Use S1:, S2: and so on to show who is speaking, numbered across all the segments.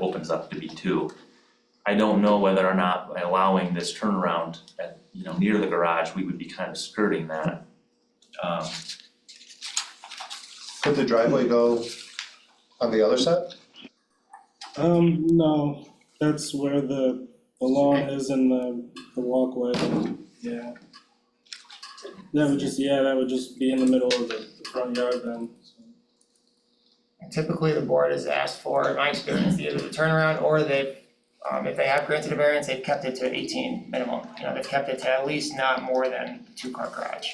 S1: opens up to be two. I don't know whether or not by allowing this turnaround at, you know, near the garage, we would be kind of skirting that. Um,
S2: Could the driveway go on the other side?
S3: Um, no, that's where the, the lawn is and the, the walkway, yeah. That would just, yeah, that would just be in the middle of the the front yard then, so.
S4: Typically, the board has asked for, in my experience, either the turnaround or they've, um, if they have granted a variance, they've kept it to eighteen minimum. You know, they've kept it to at least not more than two car garage,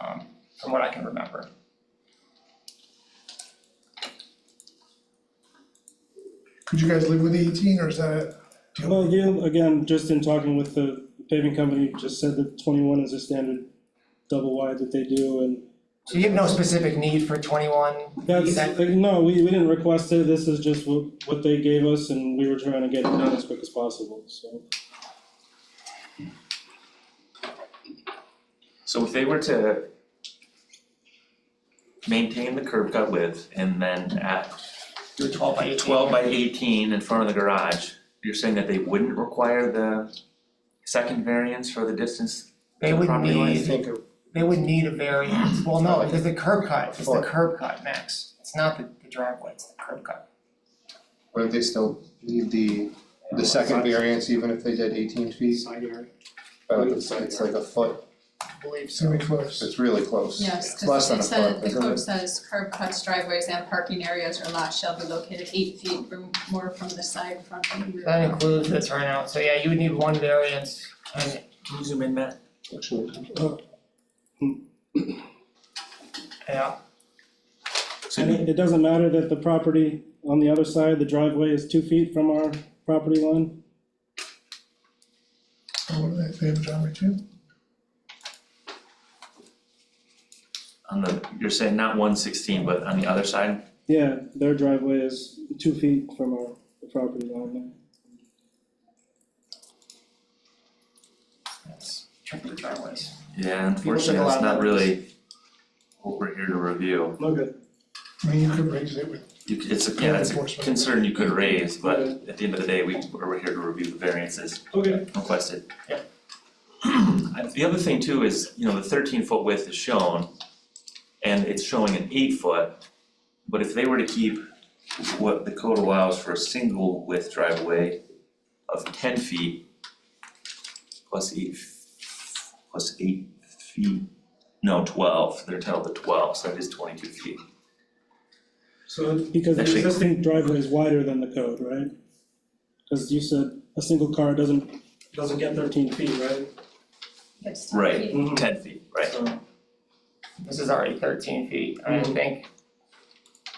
S4: um, from what I can remember.
S5: Could you guys live with eighteen or is that a
S3: Well, again, again, just in talking with the paving company, just said that twenty-one is a standard double wide that they do and
S4: So you have no specific need for twenty-one?
S3: That's,
S4: That-
S3: like, no, we, we didn't request it, this is just what, what they gave us, and we were trying to get it done as quick as possible, so.
S1: So if they were to maintain the curb cut width and then at
S4: Do a twelve by eighteen?
S1: twelve by eighteen in front of the garage, you're saying that they wouldn't require the second variance for the distance?
S4: They would
S1: Property
S2: I
S1: lines.
S4: need,
S2: think, it-
S4: they would need a variance, well, no, because the curb cut, it's the curb cut, Max, it's not the the driveway, it's the curb cut.
S2: would they still need the, the second variance even if they did eighteen feet?
S6: Side yard.
S2: Uh, it's, it's like a foot,
S4: I believe so.
S5: semi close?
S2: it's really close.
S7: Yes,
S2: It's less
S7: because
S2: than
S7: it
S2: a
S7: says,
S2: foot,
S7: the
S2: isn't
S7: code
S2: it?
S7: says curb cuts, driveways and parking areas or lots shall be located eight feet or more from the side, front and rear.
S4: That includes the turnout, so yeah, you would need one variance and
S1: Can you zoom in, Matt?
S2: Actually,
S4: Yeah,
S3: And it, it doesn't matter that the property on the other side, the driveway is two feet from our property line,
S5: Oh, what do they, they have a driveway too?
S1: On the, you're saying not one sixteen, but on the other side?
S3: yeah, their driveway is two feet from our property line.
S4: that's tricky driveways.
S1: Yeah,
S4: People took a
S1: unfortunately,
S4: lot
S1: that's
S4: of
S1: not
S4: notice.
S1: really what we're here to review.
S3: Okay.
S5: I mean, you could raise it with,
S1: You, c- it's, a yeah, it's a
S5: Enforcement.
S1: concern you could raise, but at the end of the day, we, we're here to review the variances
S3: Okay.
S1: requested.
S4: Yeah.
S1: Uh, The other thing too is, you know, the thirteen foot width is shown, and it's showing an eight foot. But if they were to keep what the code allows for a single width driveway of ten feet plus eight, f- plus eight feet, no, twelve, they're entitled to twelve, so that is twenty-two feet.
S3: So. Because the
S1: Actually-
S3: existing driveway is wider than the code, right? Cause you said a single car doesn't, doesn't get thirteen feet, right?
S7: It's ten
S1: Right.
S7: feet.
S3: Mhm.
S1: Ten feet, right?
S3: So-
S4: This is already thirteen feet, I
S3: Mhm.
S4: think.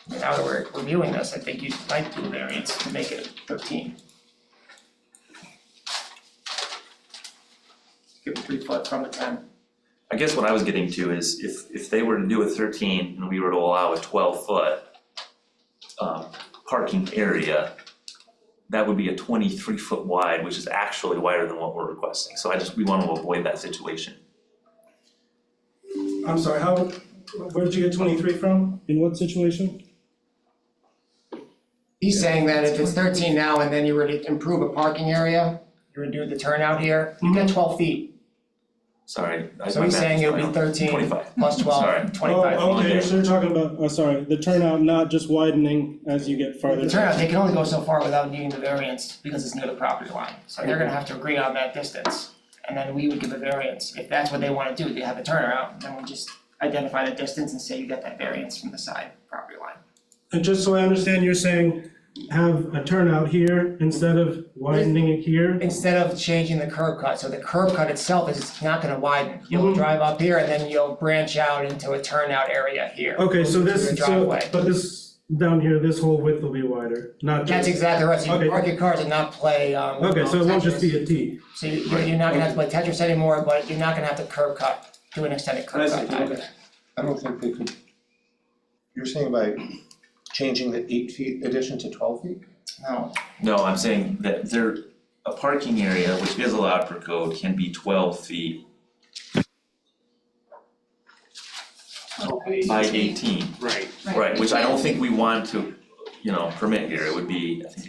S4: Now that we're reviewing this, I think you might do a variance to make it thirteen. Give it three foot from the ten.
S1: I guess what I was getting to is if if they were to do a thirteen and we were to allow a twelve foot um parking area, that would be a twenty-three foot wide, which is actually wider than what we're requesting, so I just, we wanna avoid that situation.
S3: I'm sorry, how, where did you get twenty-three from? In what situation?
S4: He's saying that if it's thirteen now and then you were to improve a parking area, you would do the turnout here, you get twelve feet,
S1: Sorry, I
S4: so
S1: my
S4: he's
S1: math
S4: saying
S1: is
S4: it would
S1: wrong.
S4: be thirteen
S1: 25.
S4: plus
S1: Sorry.
S4: twelve, twenty-five.
S3: Oh, okay,
S1: there.
S3: so you're talking about, oh, sorry, the turnout not just widening as you get farther.
S4: The turnout, they can only go so far without needing the variance because it's near the property line, so they're gonna have to agree on that distance. And then we would give a variance, if that's what they wanna do, they have a turnaround, then we just identify the distance and say you got that variance from the side property line.
S3: And just so I understand, you're saying have a turnout here instead of widening it here?
S4: Instead of changing the curb cut, so the curb cut itself is it's not gonna widen,
S3: Mm-hmm.
S4: you'll drive up here and then you'll branch out into a turnout area here.
S3: Okay, so
S4: into your
S3: this, so,
S4: driveway.
S3: but this, down here, this whole width will be wider, not
S4: That's
S3: just,
S4: exactly right, so you
S3: Okay.
S4: can park your cars and not play, um,
S3: okay, so it won't
S4: Tetris.
S3: just be a T.
S4: So you- you're, you're not gonna have to play Tetris anymore, but you're not gonna have to curb cut, do an extended curb cut either.
S2: I don't think they could. You're saying by changing the eight feet addition to twelve feet?
S4: No,
S1: No, I'm saying that there, a parking area, which is allowed per code, can be twelve feet by eighteen.
S6: Right.
S1: Right, which I don't think we want to, you know, permit here, it would be, I think